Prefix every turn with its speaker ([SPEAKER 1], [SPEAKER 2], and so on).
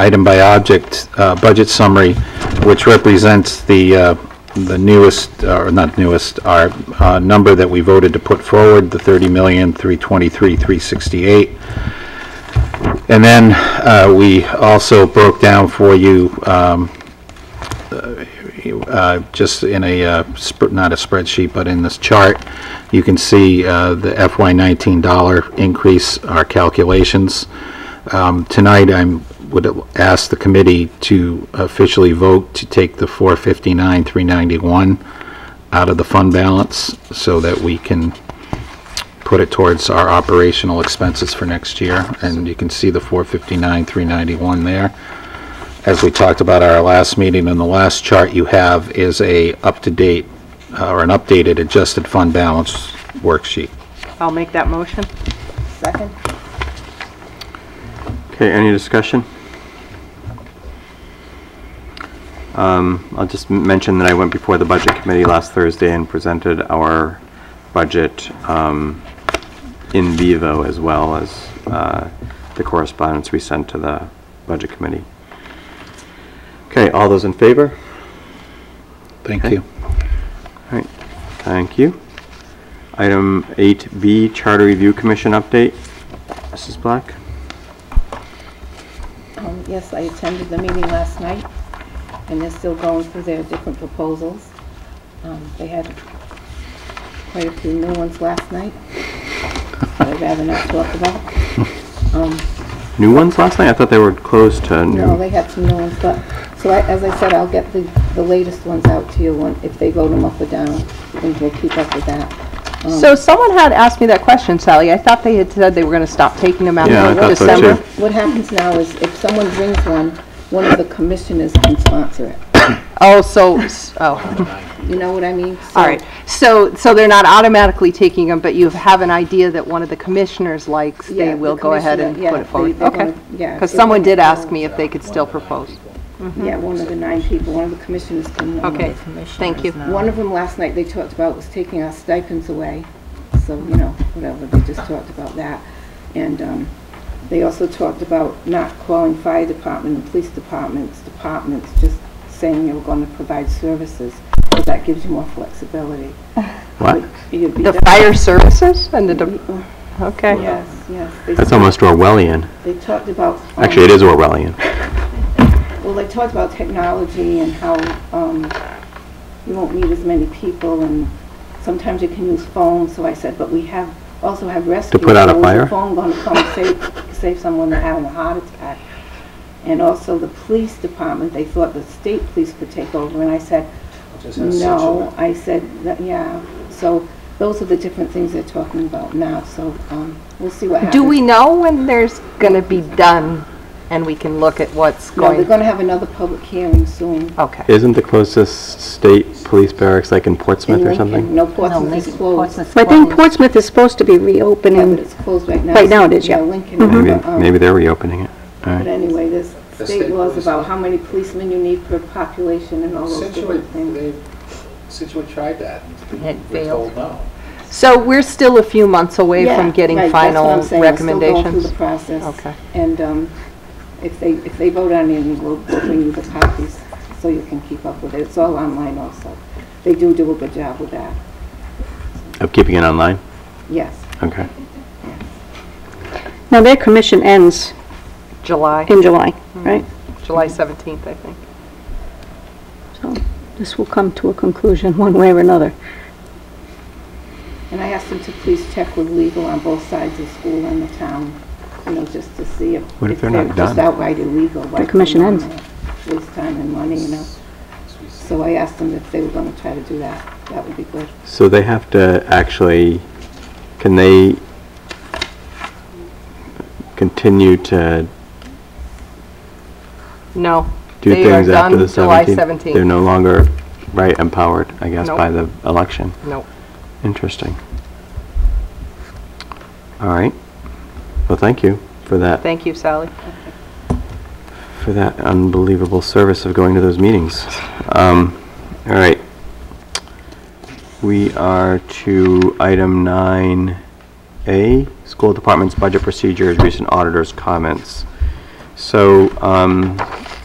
[SPEAKER 1] item by object, uh, budget summary, which represents the, uh, the newest, uh, or not newest, our uh, number that we voted to put forward, the 30,323,368. And then uh, we also broke down for you, um, uh, just in a, uh, sp- not a spreadsheet, but in this chart, you can see uh, the FY19 dollar increase, our calculations. Um, Tonight, I would ask the committee to officially vote to take the 459, 391 out of the fund balance so that we can put it towards our operational expenses for next year. And you can see the 459, 391 there. As we talked about our last meeting, and the last chart you have is a up-to-date, uh, or an updated adjusted fund balance worksheet.
[SPEAKER 2] I'll make that motion.
[SPEAKER 3] Second?
[SPEAKER 4] Okay, any discussion? Um, I'll just m- mention that I went before the Budget Committee last Thursday and presented our budget um, in vivo as well as uh, the correspondence we sent to the Budget Committee. Okay, all those in favor?
[SPEAKER 1] Thank
[SPEAKER 4] Okay.
[SPEAKER 1] you.
[SPEAKER 4] All right, thank you. Item 8B, Charter Review Commission update. Mrs. Black?
[SPEAKER 3] Um, Yes, I attended the meeting last night, and they're still going through their different proposals. Um, They had quite a few new ones last night that I'd rather not talk about. Um,
[SPEAKER 4] New ones last night? I thought they were closed to new.
[SPEAKER 3] No, they had some new ones, but, so I- as I said, I'll get the the latest ones out to you when- if they vote them up or down, and we'll keep up with that. Um,
[SPEAKER 2] So someone had asked me that question, Sally. I thought they had said they were going to stop taking them out
[SPEAKER 4] Yeah, I
[SPEAKER 2] in
[SPEAKER 4] thought so too.
[SPEAKER 2] December.
[SPEAKER 3] What happens now is if someone brings one, one of the commissioners can sponsor it.
[SPEAKER 2] Oh, so, s- oh,
[SPEAKER 3] You know what I mean?
[SPEAKER 2] all right. So, so they're not automatically taking them, but you have an idea that one of the commissioners likes,
[SPEAKER 3] Yeah,
[SPEAKER 2] they
[SPEAKER 3] the
[SPEAKER 2] will go ahead and
[SPEAKER 3] commissioner,
[SPEAKER 2] put
[SPEAKER 3] yeah,
[SPEAKER 2] it forward.
[SPEAKER 3] they- they're
[SPEAKER 2] Okay.
[SPEAKER 3] gonna- yeah,
[SPEAKER 2] Because
[SPEAKER 3] it
[SPEAKER 2] someone
[SPEAKER 3] won't
[SPEAKER 2] did
[SPEAKER 3] go-
[SPEAKER 2] ask me if they could still propose.
[SPEAKER 3] So, Yeah, one of the nine people, one of the commissioners can. nominate.
[SPEAKER 2] Okay, thank you.
[SPEAKER 3] One of them last night, they talked about was taking our stipends away, so, you know, whatever, they just talked about that. And um, they also talked about not calling fire department and police departments, departments, just saying you were going to provide services, because that gives you more flexibility.
[SPEAKER 4] What?
[SPEAKER 3] You'd be
[SPEAKER 2] The
[SPEAKER 3] done-
[SPEAKER 2] fire services and the, de-
[SPEAKER 3] Mm,
[SPEAKER 2] okay.
[SPEAKER 3] Yes, yes. They
[SPEAKER 4] That's
[SPEAKER 3] talked-
[SPEAKER 4] almost Orwellian.
[SPEAKER 3] They talked about. um,
[SPEAKER 4] Actually, it is Orwellian.
[SPEAKER 3] Well, they talked about technology and how um, you won't meet as many people, and sometimes you can use phones, so I said, but we have, also have rescue.
[SPEAKER 4] put out a
[SPEAKER 3] so is the
[SPEAKER 4] fire?
[SPEAKER 3] phone going to come and save, save someone that had a heart attack? And also the police department, they thought the state police could take over, and I said, no, I said, that- yeah, so those are the different things they're talking about now, so um, we'll see what happens.
[SPEAKER 2] Do we know when there's going to be done and we can look at what's
[SPEAKER 3] No, they're
[SPEAKER 2] going?
[SPEAKER 3] going to have another public hearing soon.
[SPEAKER 2] Okay.
[SPEAKER 4] Isn't the closest state police barracks like in Portsmouth
[SPEAKER 3] in
[SPEAKER 4] or
[SPEAKER 3] Lincoln.
[SPEAKER 4] something?
[SPEAKER 3] No, Portsmouth is closed.
[SPEAKER 5] I think Portsmouth is supposed to be
[SPEAKER 3] Yeah, but
[SPEAKER 5] reopening.
[SPEAKER 3] it's closed right now.
[SPEAKER 5] Right now it is, yeah. Mm-hmm.
[SPEAKER 3] Lincoln,
[SPEAKER 4] Maybe,
[SPEAKER 3] but, um,
[SPEAKER 4] maybe they're reopening it. All
[SPEAKER 3] But
[SPEAKER 4] right.
[SPEAKER 3] anyway, there's state
[SPEAKER 6] state
[SPEAKER 3] laws
[SPEAKER 6] police-
[SPEAKER 3] about how many policemen you need per population and all those
[SPEAKER 6] Situate,
[SPEAKER 3] different things.
[SPEAKER 6] they, Situate tried that. It failed. no.
[SPEAKER 2] So we're still a few months away
[SPEAKER 3] Yeah,
[SPEAKER 2] from getting
[SPEAKER 3] right, that's what
[SPEAKER 2] final
[SPEAKER 3] I'm saying. We're still going through
[SPEAKER 2] recommendations?
[SPEAKER 3] the process.
[SPEAKER 2] Okay.
[SPEAKER 3] And um, if they, if they vote on it, we'll we'll bring you the copies so you can keep up with it. It's all online also. They do do a good job with that,
[SPEAKER 4] Of keeping it online?
[SPEAKER 3] yes.
[SPEAKER 4] Okay.
[SPEAKER 5] Now, their commission ends
[SPEAKER 2] July,
[SPEAKER 5] in July, right?
[SPEAKER 2] July 17th, I think.
[SPEAKER 5] So this will come to a conclusion one way or another.
[SPEAKER 3] And I asked them to please check with legal on both sides of school and the town, you know, just to see if.
[SPEAKER 4] What if they're not
[SPEAKER 3] Just
[SPEAKER 4] done?
[SPEAKER 3] outright illegal. why
[SPEAKER 5] commission
[SPEAKER 3] put them
[SPEAKER 5] ends.
[SPEAKER 3] on there? Waste time and money, you know. So I asked them if they were going to try to do that. That would be good.
[SPEAKER 4] So they have to actually, can they continue to
[SPEAKER 2] No.
[SPEAKER 4] do
[SPEAKER 2] they are
[SPEAKER 4] things after
[SPEAKER 2] done
[SPEAKER 4] the 17th?
[SPEAKER 2] July
[SPEAKER 4] They're
[SPEAKER 2] 17th.
[SPEAKER 4] no longer, right, empowered, I guess,
[SPEAKER 2] Nope.
[SPEAKER 4] by the election.
[SPEAKER 2] No.
[SPEAKER 4] Interesting. All right. Well, thank you for that.
[SPEAKER 2] Thank you, Sally.
[SPEAKER 4] for that unbelievable service of going to those meetings. Um, all right. We are to item 9A, School Department's Budget Procedures, Recent Auditor's Comments. So um,